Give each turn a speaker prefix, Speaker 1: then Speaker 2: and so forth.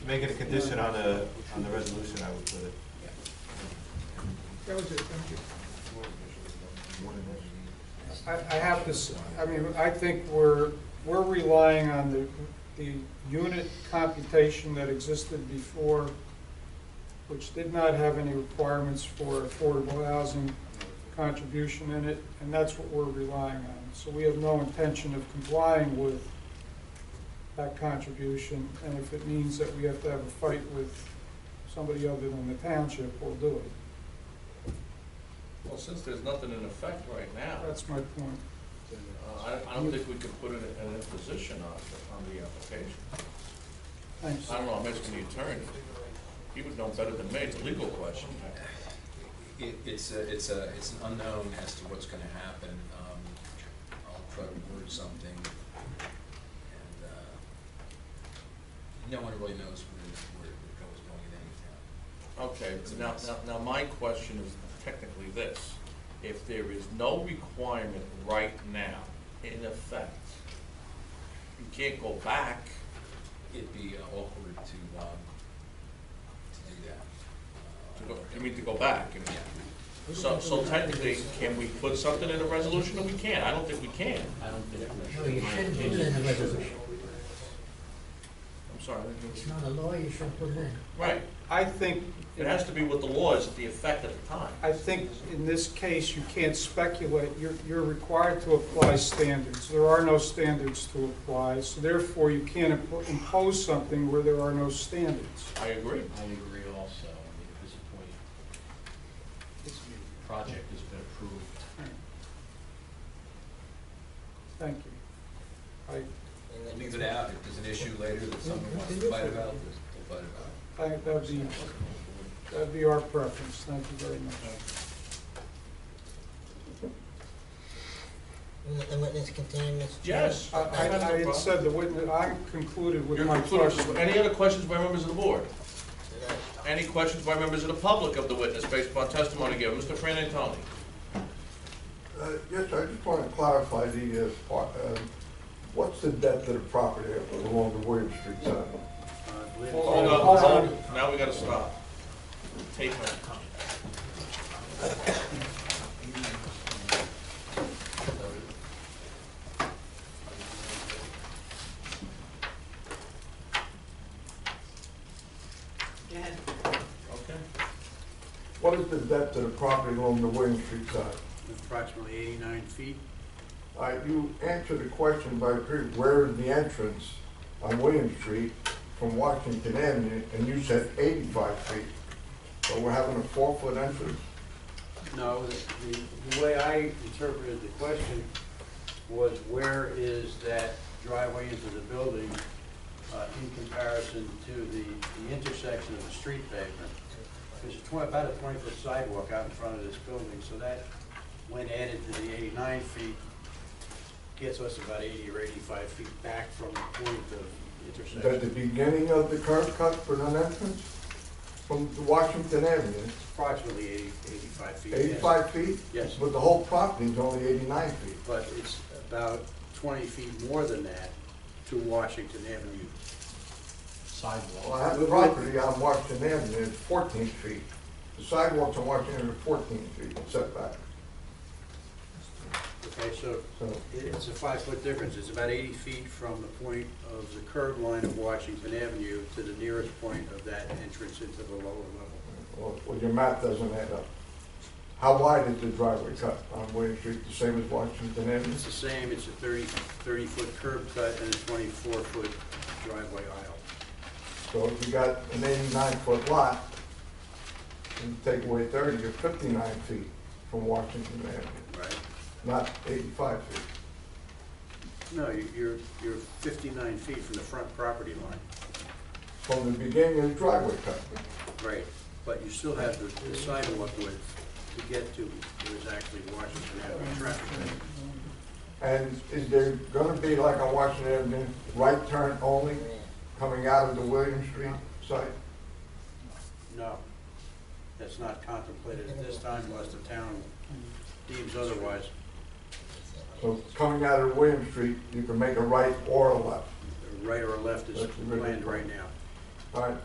Speaker 1: Make it a condition on the, on the resolution, I would put it.
Speaker 2: That was it, thank you.
Speaker 3: I, I have to, s- I mean, I think we're, we're relying on the, the unit computation that existed before, which did not have any requirements for affordable housing contribution in it, and that's what we're relying on. So we have no intention of complying with that contribution, and if it means that we have to have a fight with somebody other than the township, we'll do it.
Speaker 4: Well, since there's nothing in effect right now,
Speaker 3: That's my point.
Speaker 4: uh, I, I don't think we can put an, an imposition on, the- on the application.
Speaker 3: Thanks.
Speaker 4: I don't know, I'm asking the attorney, he would know better than me, it's a legal question.
Speaker 5: It, it's a, it's a, it's an unknown as to what's gonna happen. Um, I'll try to word something. And, uh, no one really knows where, where it goes going in any town.
Speaker 4: Okay, now, now, now my question is technically this, if there is no requirement right now, in effect, you can't go back,
Speaker 5: It'd be uh, awkward to, um, to do that. Uh,
Speaker 4: to go, I mean, to go back, I mean,
Speaker 5: Yeah,
Speaker 4: So, so technically, can we put something in the resolution that we can? I don't think we can.
Speaker 6: I don't think
Speaker 7: No, you shouldn't put it in the resolution.
Speaker 4: I'm sorry. I didn't
Speaker 7: It's
Speaker 4: hear you.
Speaker 7: not a law, you shouldn't put it in.
Speaker 4: Right,
Speaker 3: I think.
Speaker 4: it has to be what the law is, the effect at the time.
Speaker 3: I think in this case, you can't speculate. You're, you're required to apply standards. There are no standards to apply, so therefore you can't impo- impose something where there are no standards.
Speaker 4: I agree.
Speaker 6: I agree also, I mean, at this point, this project has been approved.
Speaker 3: Thank you. I,
Speaker 5: and then leave it out. If there's an issue later that someone wants to fight about, they'll fight about
Speaker 3: I,
Speaker 5: it.
Speaker 3: that'd be, that'd be our preference. Thank you very much.
Speaker 7: And let the witness continue, Mr. Chair.
Speaker 4: Yes.
Speaker 3: I, I I had said the witness, I concluded with
Speaker 4: You're
Speaker 3: my question.
Speaker 4: concluded. Any other questions by members of the board?
Speaker 7: No.
Speaker 4: Any questions by members of the public of the witness based upon testimony given? Mr. Fran Antoni?
Speaker 8: Uh, Yes, sir, I just want to clarify the, uh, par- uh, what's the depth of the property along the William Street side?
Speaker 4: Hold on, hold on. Now we gotta stop. Tape it. Okay.
Speaker 8: What is the depth of the property along the William Street side?
Speaker 9: approximately 89 feet.
Speaker 8: Uh, You answered the question by, pre- where is the entrance on William Street from Washington Avenue? And you said 85 feet. So we're having a four-foot entrance.
Speaker 9: No, the, the way I interpreted the question was where is that driveway into the building uh, in comparison to the, the intersection of the street pavement? There's a twen- about a 20-foot sidewalk out in front of this building, so that, when added to the 89 feet, gets us about 80 or 85 feet back from the point of
Speaker 8: Is that the
Speaker 9: intersection.
Speaker 8: beginning of the curb cut for an entrance from the Washington Avenue?
Speaker 9: Approximately 80, 85 feet. yes.
Speaker 8: 85 feet?
Speaker 9: Yes.
Speaker 8: But the whole property is only 89 feet.
Speaker 9: but it's about 20 feet more than that to Washington Avenue.
Speaker 8: Well,
Speaker 6: Sidewalk.
Speaker 8: I have the property on Washington Avenue, it's fourteen feet. The sidewalks on Washington Avenue are fourteen feet setback,
Speaker 9: Okay, so
Speaker 8: so.
Speaker 9: it- it's a five-foot difference. It's about 80 feet from the point of the curb line of Washington Avenue to the nearest point of that entrance into the lower level.
Speaker 8: Well, well, your math doesn't add up. How wide is the driveway cut on William Street, the same as Washington Avenue?
Speaker 9: It's the same, it's a 30, 30-foot curb cut and a 24-foot driveway aisle.
Speaker 8: So if you got an eighty-nine foot lot, and take away thirty, you're fifty-nine feet from Washington Avenue,
Speaker 9: Right?
Speaker 8: not eighty-five feet.
Speaker 9: No, you- you're, you're 59 feet from the front property line.
Speaker 8: From the beginning of the driveway cut.
Speaker 9: Right, but you still have the- the sidewalk width to get to, there's actually Washington Avenue traffic.
Speaker 8: And is there gonna be, like on Washington Avenue, right turn only coming out of the William Street site?
Speaker 9: No, that's not contemplated at this time unless the town deems otherwise.
Speaker 8: So coming out of William Street, you can make a right or a left.
Speaker 9: The Right or left is planned right now.
Speaker 8: All right,